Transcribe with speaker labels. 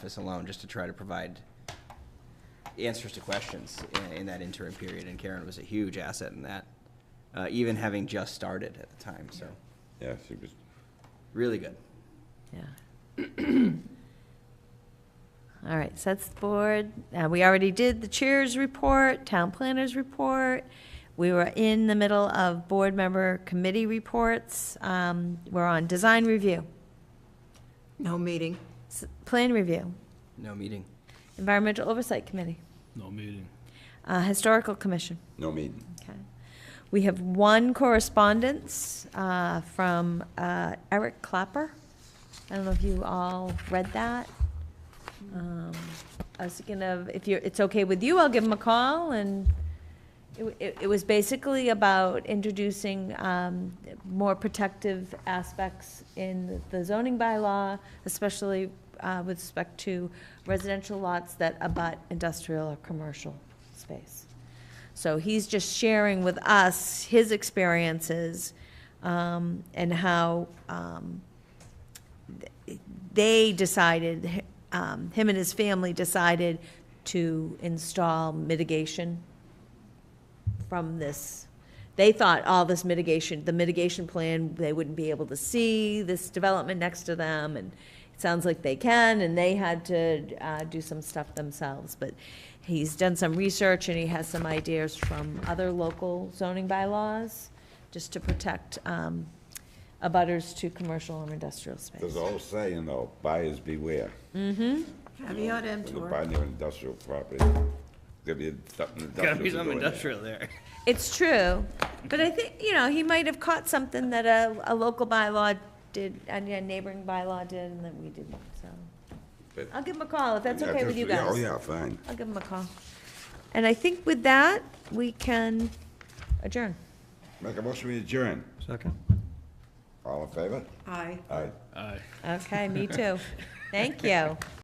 Speaker 1: office alone just to try to provide answers to questions in, in that interim period, and Karen was a huge asset in that, uh, even having just started at the time, so,
Speaker 2: Yeah, she was,
Speaker 1: really good.
Speaker 3: Yeah. All right, so that's the board. Uh, we already did the chair's report, town planner's report. We were in the middle of board member committee reports. Um, we're on design review,
Speaker 4: No meeting.
Speaker 3: s- plan review,
Speaker 1: No meeting.
Speaker 3: environmental oversight committee,
Speaker 5: No meeting.
Speaker 3: uh, historical commission.
Speaker 2: no meeting.
Speaker 3: Okay. We have one correspondence uh, from uh, Eric Clapper. I don't know if you all read that. Um, I was thinking of, if you're, it's okay with you, I'll give him a call, and it- it it was basically about introducing um, more protective aspects in the zoning bylaw, especially uh, with respect to residential lots that abut industrial or commercial space. So he's just sharing with us his experiences um, and how um, th- they decided, um, him and his family decided to install mitigation from this. They thought all this mitigation, the mitigation plan, they wouldn't be able to see this development next to them, and it sounds like they can, and they had to uh, do some stuff themselves. But he's done some research, and he has some ideas from other local zoning bylaws, just to protect um, abutters to commercial and industrial space.
Speaker 2: There's a whole saying though, buyers beware.
Speaker 4: Caveat
Speaker 2: When you
Speaker 4: emptor.
Speaker 2: buy new industrial property, there'll be something industrial.
Speaker 5: Gotta be
Speaker 2: to
Speaker 5: some
Speaker 2: do in there.
Speaker 5: industrial there.
Speaker 3: It's true, but I think, you know, he might have caught something that a, a local bylaw did, and a neighboring bylaw did, and that we didn't, so.
Speaker 2: But-
Speaker 3: I'll give him a call, if that's
Speaker 2: Yeah,
Speaker 3: okay with you
Speaker 2: just- yeah,
Speaker 3: guys.
Speaker 2: Oh, yeah, fine.
Speaker 3: I'll give him a call. And I think with that, we can adjourn.
Speaker 2: Make a motion, we adjourn.
Speaker 1: Second.
Speaker 2: All in favor?
Speaker 4: Aye.
Speaker 2: Aye.
Speaker 5: Aye.
Speaker 3: Okay, me too. Thank you.